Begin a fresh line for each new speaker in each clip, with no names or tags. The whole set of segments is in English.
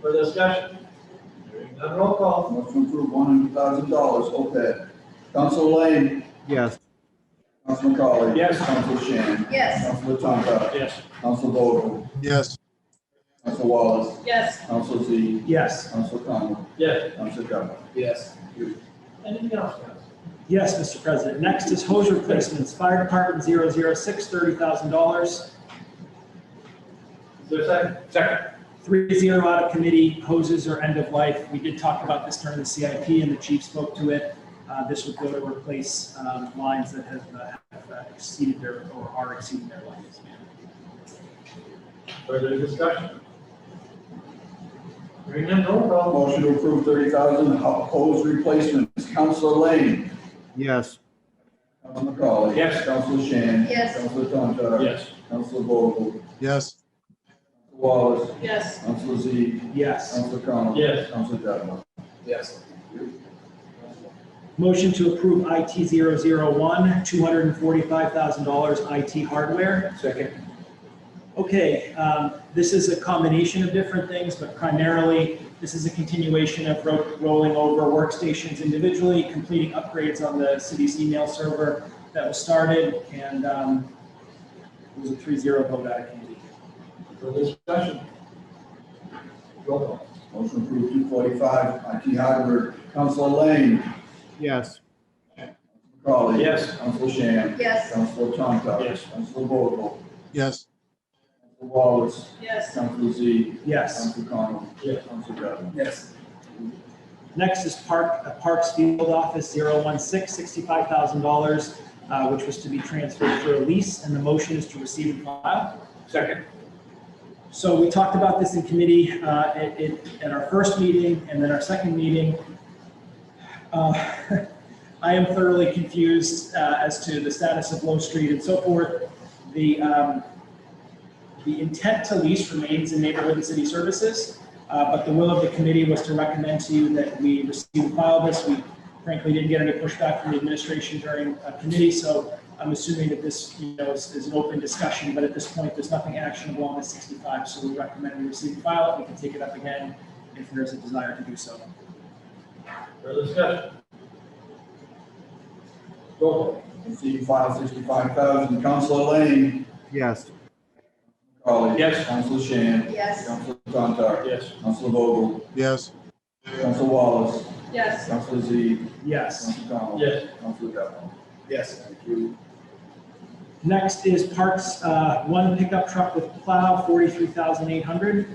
For discussion? Hearing none, roll call.
Motion approved, one hundred thousand dollars, OPEB. Council Lane,
yes,
Council McCauley.
Yes.
Council Shan.
Yes.
Council Tonto,
Yes.
Council Vogel,
yes,
Council Wallace,
Yes.
Council Z,
Yes.
Council Connell,
Yes.
Council Devlin.
Yes.
Anything else, guys?
Yes, Mr. President. Next is hose replacements, Fire Department 006, $30,000.
Is there a second? Second.
Three zero out of committee, hoses are end of life. We did talk about this during the CIP and the chief spoke to it. Uh, This would go to replace um, lines that have uh, have, uh, exceeded their, or are exceeding their lines.
Further discussion? Hearing none, roll call.
Motion to approve thirty thousand hose replacements, Council Lane,
yes,
Council McCauley.
Yes.
Council Shan.
Yes.
Council Tonto.
Yes.
Council Vogel, Council
yes,
Wallace,
Yes.
Council Z,
Yes.
Council Connell.
Yes.
Council Devlin.
Yes. Motion to approve IT 001, $245,000 IT hardware.
Second.
Okay, um, this is a combination of different things, but primarily, this is a continuation of ro- rolling over workstations individually, completing upgrades on the city's email server that was started, and um, it was a 3-0 vote out of committee.
For discussion? Roll call.
Motion approved two forty-five, IT hardware, Council Lane,
yes,
McCauley.
Yes.
Council Shan.
Yes.
Council Tonto.
Yes.
Council Vogel,
yes,
Council Wallace,
Yes.
Council Z,
Yes.
Council Connell.
Yes.
Council Devlin.
Yes. Next is Park, uh, Parks Field Office 016, $65,000, uh, which was to be transferred for a lease, and the motion is to receive and file.
Second.
So we talked about this in committee uh, at at- at our first meeting and then our second meeting. Uh, I am thoroughly confused uh, as to the status of Low Street and so forth. The, um, the intent to lease remains in neighborhood and city services, uh, but the will of the committee was to recommend to you that we receive and file this. We frankly didn't get any pushback from the administration during uh, committee, so I'm assuming that this, you know, is, is an open discussion, but at this point, there's nothing actionable on the 65, so we recommend we receive and file it. We can take it up again if there's a desire to do so.
For discussion? Roll call.
Receive file sixty-five thousand, Council Lane,
yes,
McCauley.
Yes.
Council Shan.
Yes.
Council Tonto.
Yes.
Council Vogel,
yes,
Council Wallace,
Yes.
Council Z,
Yes.
Council Connell.
Yes.
Council Devlin.
Yes.
Thank you.
Next is parts, uh, one pickup truck with plow, 43,800.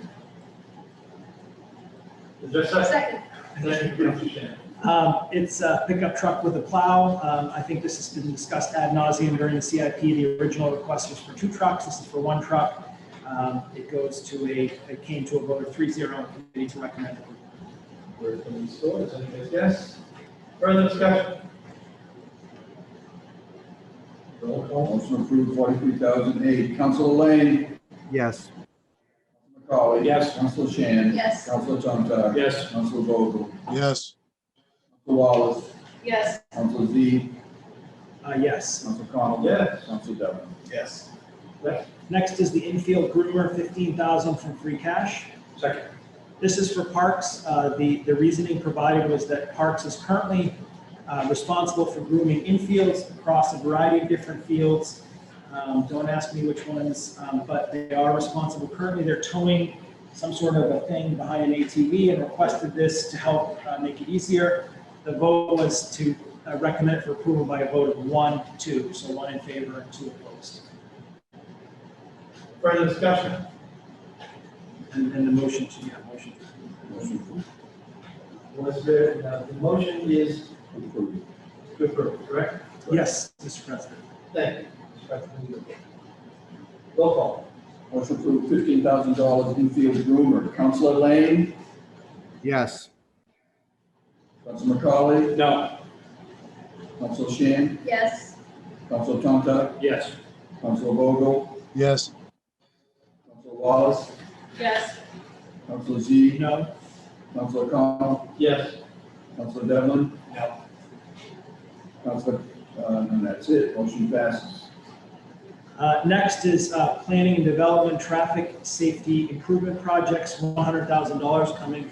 Is there a second?
Second.
Second, Council Shan.
Um, It's a pickup truck with a plow. Um, I think this has been discussed ad nauseum during the CIP. The original request was for two trucks. This is for one truck. Um, It goes to a, it came to a vote of 3-0 committee to recommend approval.
Where can we store it? Anybody's guess? Further discussion? Roll call.
Motion approved forty-three thousand eight, Council Lane,
yes,
McCauley.
Yes.
Council Shan.
Yes.
Council Tonto.
Yes.
Council Vogel, Council
yes,
Wallace,
Yes.
Council Z,
Uh, Yes.
Council Connell.
Yes.
Council Devlin.
Yes.
Yes.
Next is the infield groomer, 15,000 from free cash.
Second.
This is for Parks. Uh, The, the reasoning provided was that Parks is currently uh, responsible for grooming infields across a variety of different fields. Um, Don't ask me which ones, um, but they are responsible. Currently, they're towing some sort of a thing behind an ATV and requested this to help uh, make it easier. The vote was to uh, recommend it for approval by a vote of one to two, so one in favor and two opposed.
Further discussion?
And and the motion to, yeah, motion to approve.
Motion approved.
Was there, uh, the motion is
Approved.
to approve, correct?
Yes, Mr. President.
Thank you. Roll call.
Motion approved fifteen thousand dollars infield groomer, Council Lane,
yes,
Council McCauley,
No.
Council Shan,
Yes.
Council Tonto,
Yes.
Council Vogel,
yes,
Council Wallace,
Yes.
Council Z,
No?
Council Connell,
Yes.
Council Devlin.
No.
Council, uh, and that's it, motion passes.
Uh, Next is uh, planning and development, traffic safety improvement projects, $100,000 coming